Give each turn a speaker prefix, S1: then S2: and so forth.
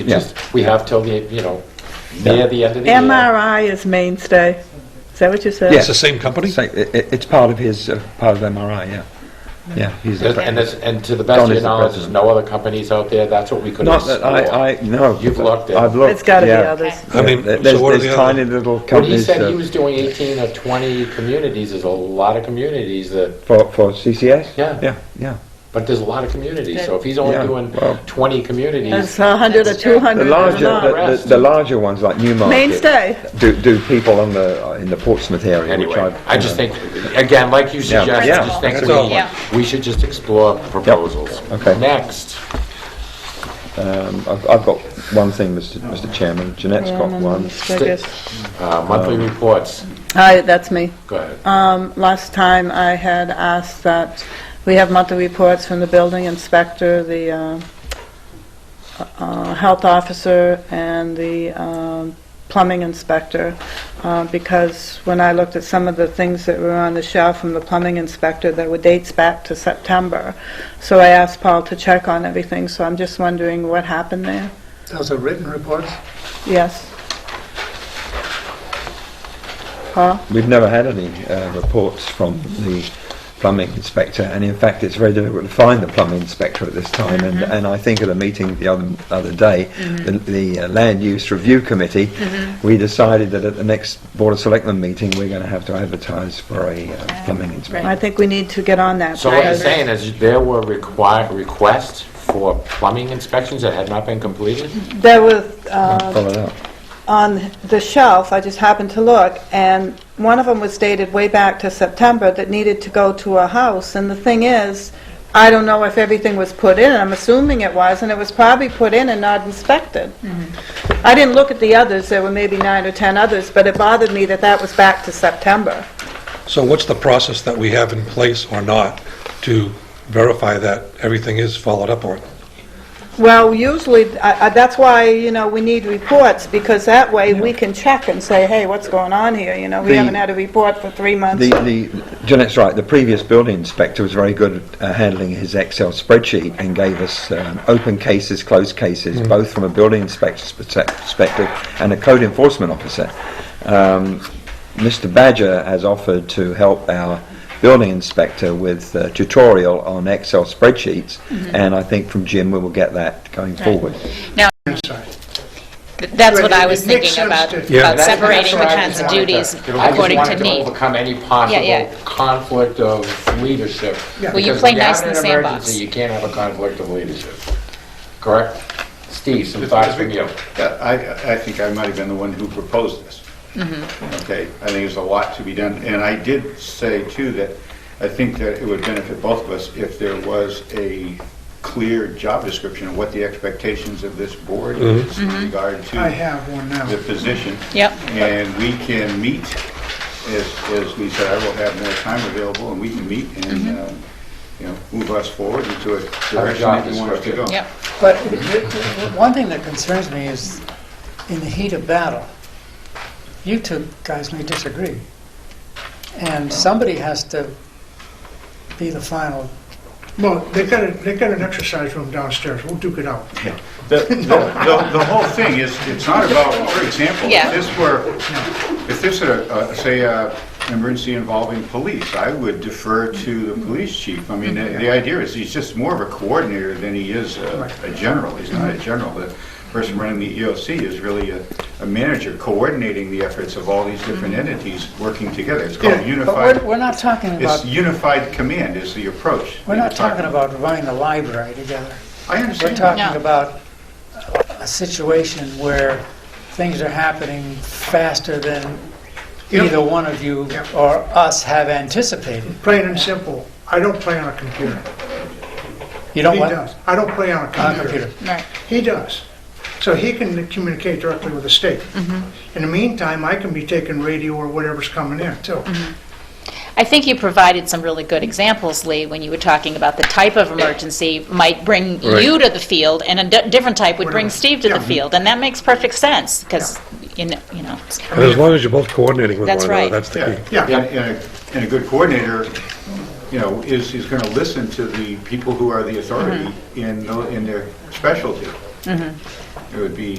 S1: It
S2: Yeah.
S1: just, we have till the, you know, near the end of the year.
S3: MRI is mainstay. Is that what you said?
S2: Yeah.
S4: It's the same company?
S2: It's, like, it, it- it's part of his, uh, part of MRI, yeah. Yeah, he's the
S1: And- And
S2: president.
S1: this, and to the best of
S2: Don
S1: your
S2: is the
S1: knowledge, there's no other companies out there, that's what we could
S2: Not
S1: explore.
S2: that I, I, no.
S1: You've looked at-
S2: I've looked,
S3: It's got to be
S2: yeah.
S3: others.
S4: I mean,
S2: There's,
S4: so what are
S2: there's
S4: the
S2: tiny
S4: other?
S2: little
S1: When he
S2: companies
S1: said he
S2: uh,
S1: was doing 18 or 20 communities, there's a lot of communities that,
S2: for, for CCS?
S1: Yeah.
S2: Yeah, yeah.
S1: but there's a lot of communities, so if he's only
S2: Yeah,
S1: doing
S2: well-
S1: 20 communities,
S3: That's 100 or
S5: That's true.
S2: The
S3: 200 is
S2: larger,
S3: not.
S2: the- the, the larger ones like Newmarket.
S3: Mainstay.
S2: Do, do people on the, uh, in the Portsmouth area, which
S1: anyway,
S2: I've.
S1: I just think, again, like you
S2: Yeah,
S1: suggest, I
S2: yeah,
S1: just think
S4: that's all.
S1: we-
S5: Yeah.
S1: we should just explore proposals.
S2: okay.
S1: Next,
S2: Um, I've, I've got one thing, Mr. Mr. Chairman, Jeanette's got one.
S1: uh, monthly reports,
S3: Hi, that's me.
S1: go ahead.
S3: Um, Last time, I had asked that we have monthly reports from the building inspector, the uh, uh, health officer, and the um, plumbing inspector, uh, because when I looked at some of the things that were on the shelf from the plumbing inspector, there were dates back to September. So I asked Paul to check on everything, so I'm just wondering what happened there.
S6: Those are written reports?
S3: Yes? Paul?
S2: We've never had any uh, reports from the plumbing inspector, and in fact, it's very difficult to find the plumbing inspector at this time. And, and I think at a meeting the other other day, the, the uh, land use review committee, we decided that at the next board of selectmen meeting, we're going to have to advertise for a uh, plumbing inspector.
S3: I think we need to get on that.
S1: So what you're
S3: because-
S1: saying is there were require, requests for plumbing inspections that had not been completed?
S3: There was, uh,
S2: Follow that.
S3: on the shelf, I just happened to look, and one of them was dated way back to September that needed to go to a house, and the thing is, I don't know if everything was put in, I'm assuming it was, and it was probably put in and not inspected. I didn't look at the others, there were maybe nine or 10 others, but it bothered me that that was back to September.
S4: So what's the process that we have in place or not to verify that everything is followed up on?
S3: Well, usually, I- I- that's why, you know, we need reports, because that way we can check and say, hey, what's going on here, you know, we
S2: The-
S3: haven't had a report for three months.
S2: The, the, Jeanette's right, the previous building inspector was very good at uh, handling his Excel spreadsheet and gave us um, open cases, closed cases, both from a building inspector's perse- perspective and a code enforcement officer. Um, Mr. Badger has offered to help our building inspector with a tutorial on Excel spreadsheets, and I think from Jim we will get that going forward.
S6: I'm sorry.
S5: Th- That's what I was
S6: It makes
S5: thinking about,
S6: sense to-
S4: Yeah.
S5: about
S1: That's-
S5: separating
S1: that's
S5: the
S1: what I
S5: kinds of
S1: just wanted
S5: duties
S1: to-
S5: according
S1: I
S5: to
S1: just wanted
S5: need.
S1: to overcome any
S5: yeah.
S1: possible conflict of leadership.
S6: Yeah.
S5: Well, you
S1: Because
S5: play
S1: if
S5: nice
S1: have
S5: in the
S1: an
S5: sandbox.
S1: emergency, You can't have a conflict of leadership, correct? Steve, some thoughts from you.
S7: Yeah, I, I think I might have been the one who proposed this.
S5: Mm-hmm.
S7: Okay, I think there's a lot to be done, and I did say too that I think that it would benefit both of us if there was a clear job description of what the expectations of this board
S1: Mm-hmm.
S7: is in regard to
S6: I have one now.
S7: the position.
S5: Mm-hmm. Yep.
S7: And we can meet, as, as we said, I will have more time available, and we can meet and,
S5: Mm-hmm.
S7: um, you know, move us forward into a direction
S1: job
S7: that you want us to
S1: description.
S7: go.
S5: Yep.
S6: But the- the- one thing that concerns me is, in the heat of battle, you two guys may disagree, and somebody has to be the final.
S8: Well, they got, a- they got an exercise room downstairs, we'll duke it out.
S7: The, the, the- the whole thing is, it's not about, for example,
S5: Yeah.
S7: if this were, if this were, uh, say, uh, an emergency involving police, I would defer to the police chief. I mean, the the idea is, he's just more of a coordinator than he is a a general. He's not a general. The person running the EOC is really a a manager coordinating the efforts of all these different entities working together. It's called
S6: But we're,
S7: unified,
S6: we're not talking
S7: it's
S6: about,
S7: unified command is the approach.
S6: we're
S7: that
S6: not
S7: you're
S6: talking about running the library together.
S7: I
S6: We're
S7: understand.
S5: No.
S6: talking about a situation where things are happening faster than
S8: Yep.
S6: either one of you
S8: Yep.
S6: or us have anticipated.
S8: Plain and simple, I don't play on a computer.
S6: You don't
S8: He
S6: want
S8: does, I don't play on
S6: On
S8: a
S6: a
S8: computer.
S6: computer.
S5: Right.
S8: He does. So he can communicate directly with the state. In the meantime, I can be taking radio or whatever's coming in, too.
S5: I think you provided some really good examples, Lee, when you were talking about the type of emergency might bring you to the field, and a di- different type would bring
S8: Whatever.
S5: Steve to the field, and that makes perfect sense, because, you know, you know,
S4: And as long as you're both coordinating with one
S5: That's
S4: another,
S5: right.
S4: that's the key.
S8: Yeah.
S7: And, and a, and a good coordinator, you know, is, is gonna
S4: Mm-hmm.
S7: listen to the people who are the authority in, tho- in their specialty. It would be